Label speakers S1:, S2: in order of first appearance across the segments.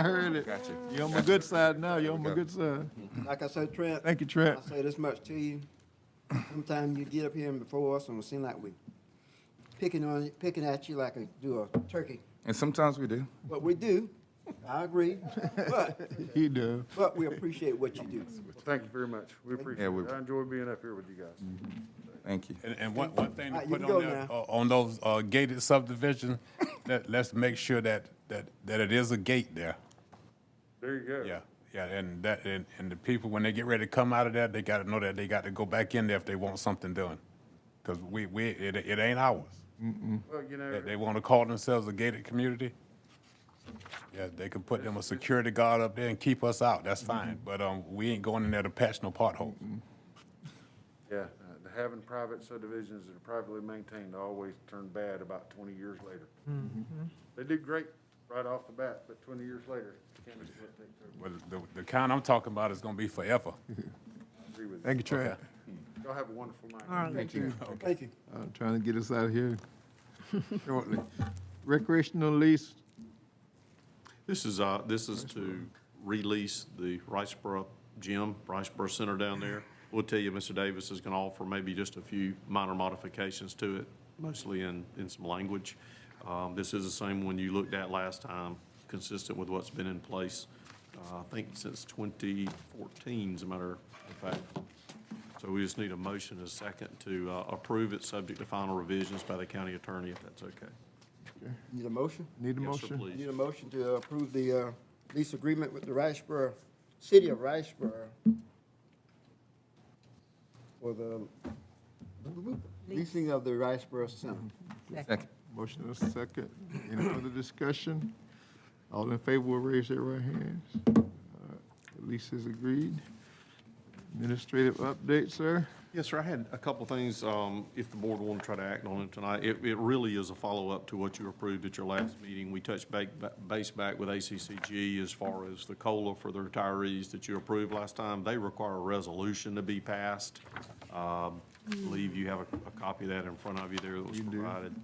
S1: I heard it.
S2: Got you.
S1: You're on my good side now. You're on my
S2: Okay.
S1: good side.
S3: Like I said, Trent.
S1: Thank you, Trent.
S3: I say this much to you. Sometimes you get up here and before us and it seem like we picking on, you- picking at you like a, do a turkey.
S2: And sometimes we do.
S3: But we do, I agree, but,
S1: He do.
S3: but we appreciate what you do.
S4: Thank you very much. We appreciate
S2: we-
S4: it. I enjoy being up here with you guys.
S2: Thank you.
S5: And, and one, one thing to
S3: Alright, you
S5: put
S3: can
S5: on
S3: go
S5: there,
S3: now.
S5: uh, on those, uh, gated subdivisions, that, let's make sure that, that, that it is a gate there.
S4: There you go.
S5: Yeah, yeah, and that, and, and the people, when they get ready to come out of that, they gotta know that they got to go back in there if they want something done. Cause we, we, it, it ain't ours.
S4: Well, you know,
S5: That they wanna call themselves a gated community. Yeah, they could put them a security guard up there and keep us out, that's
S3: Mm-hmm.
S5: fine, but, um, we ain't going in there to patch no potholes.
S4: yeah, uh, having private subdivisions that are privately maintained always turn bad about twenty years later. They do great right off the bat, but twenty years later, can't just let things over.
S5: Well, the, the kind I'm talking about is gonna be forever.
S4: I agree with you.
S1: Thank you, Trent.
S4: Y'all have a wonderful night.
S1: Thank you.
S3: Thank you.
S1: I'm trying to get us out of here shortly. Recreational lease,
S6: This is, uh, this is to release the Riceboro gym, Riceboro Center down there. We'll tell you, Mr. Davis is gonna offer maybe just a few minor modifications to it, mostly in, in some language. Um, this is the same one you looked at last time, consistent with what's been in place, uh, I think since twenty fourteen, as a matter of fact. So we just need a motion and a second to, uh, approve it, subject to final revisions by the county attorney, if that's okay.
S3: Need a motion?
S1: need a
S6: Yes, sir,
S1: motion?
S6: please.
S3: Need a motion to approve the, uh, lease agreement with the Riceboro, City of Riceboro for the leasing of the Riceboro Center.
S2: Second.
S1: Motion and a second. Any further discussion? All in favor will raise their right hands. All right, The Lease is agreed. Administrative update, sir?
S6: Yes, sir, I had a couple things, um, if the board wanted to try to act on it tonight. It, it really is a follow-up to what you approved at your last meeting. We touched ba- ba- base back with ACCG as far as the COLA for the retirees that you approved last time. They require a resolution to be passed. Um, I believe you have a, a copy of that in front of you there that was provided.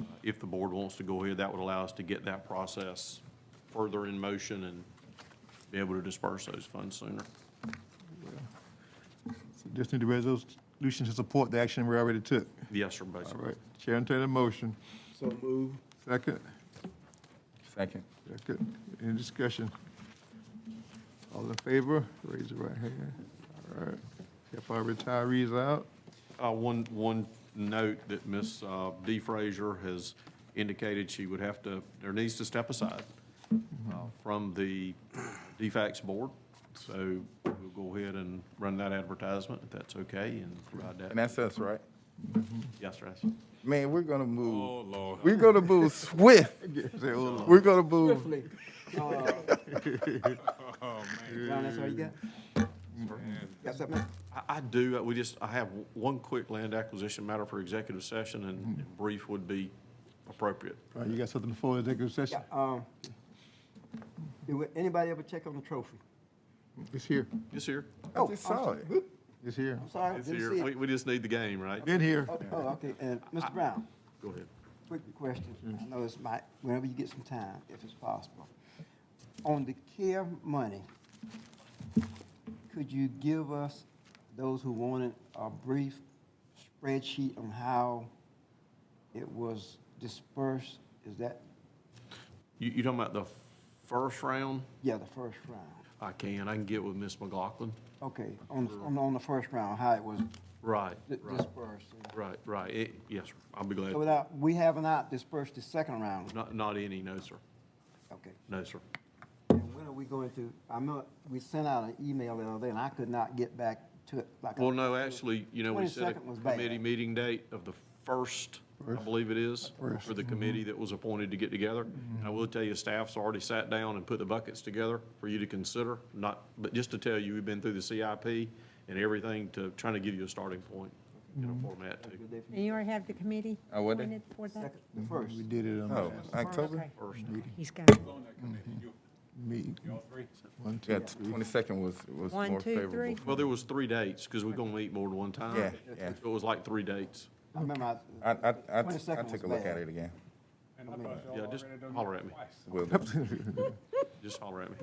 S6: Uh, If the board wants to go ahead, that would allow us to get that process further in motion and be able to disperse those funds sooner.
S1: So Just need a resolution to support the action we already took.
S6: Yes, sir,
S1: All
S6: basically.
S1: right, Chair entertain a motion.
S3: So move.
S1: Second?
S2: Second.
S1: Second. Any discussion? All in favor, raise your right hand. All right. Help our retirees out.
S6: Uh, One, one note that Ms. uh, Dee Frazier has indicated she would have to, or needs to step aside uh, from the DFAX board. So we'll go ahead and run that advertisement, if that's okay, and provide
S2: And
S6: that.
S2: that's us, right?
S6: Yes, sir.
S2: Man, we're gonna move,
S5: Oh, Lord.
S2: we're gonna move swift.
S1: Say, "Oh,
S2: We're gonna move.
S3: Swiftly. Uh,
S5: Oh,
S3: Ron, that's all you got? Got something?
S6: I, I do, uh, we just, I have one quick land acquisition matter for executive session, and brief would be appropriate.
S1: All right, You got something before executive
S3: Yeah,
S1: session?
S3: um, did anybody ever check on the trophy?
S1: It's here.
S6: Yes, here.
S2: Oh, I just saw it.
S1: It's here.
S3: I'm sorry, I
S6: It's
S3: didn't
S6: here.
S3: see
S6: We,
S3: it.
S6: we just need the game, right?
S1: Been here.
S3: Oh, oh, okay, and Mr. Brown,
S6: Go ahead.
S3: quick question. I know it's my, whenever you get some time, if it's possible. On the care money, could you give us, those who wanted, a brief spreadsheet on how it was dispersed? Is that,
S6: You, you talking about the first round?
S3: yeah, the first round?
S6: I can, I can get with Ms. McLaughlin.
S3: Okay, on, on, on the first round, how it was
S6: Right,
S3: di-
S6: right,
S3: dispersed?
S6: right, right. It- Yes, sir. I'll be
S3: So
S6: glad.
S3: without, we have not dispersed the second round,
S6: Not, not any, no, sir.
S3: okay.
S6: No, sir.
S3: And when are we going to, I know, we sent out an email the other day, and I could not get back to it like. I-
S6: Well, no, actually, you know, we set
S3: 22nd was
S6: a
S3: bad.
S6: committee meeting date of the first, I believe it is, for the committee that was appointed to get together.
S3: Mm-hmm.
S6: I will tell you, staff's already sat down and put the buckets together for you to consider, not, but just to tell you, we've been through the CIP and everything to, trying to give you a starting point in
S3: Mm-hmm.
S6: a format too.
S3: Good day for you.
S7: And you already have the committee
S2: I wouldn't.
S7: appointed for that?
S3: Second, The first.
S1: We did it on
S2: Oh, October?
S7: Okay.
S6: First.
S7: He's got it.
S1: the meeting. One, two,
S2: Yeah,
S1: three.
S2: twenty-second was, was
S7: One,
S2: more
S7: two,
S2: favorable.
S7: three.
S6: Well, there was three dates, because we're gonna meet more than one time.
S2: Yeah, yeah.
S6: So It was like three dates.
S3: I remember.
S2: I, I, I, I
S3: 22nd
S2: took a
S3: was
S2: look
S3: bad.
S2: at it again.
S5: And I thought y'all
S6: Yeah, just
S5: already done
S6: holler
S5: that
S6: at me.
S5: twice.
S2: Will do.
S6: Just holler at me.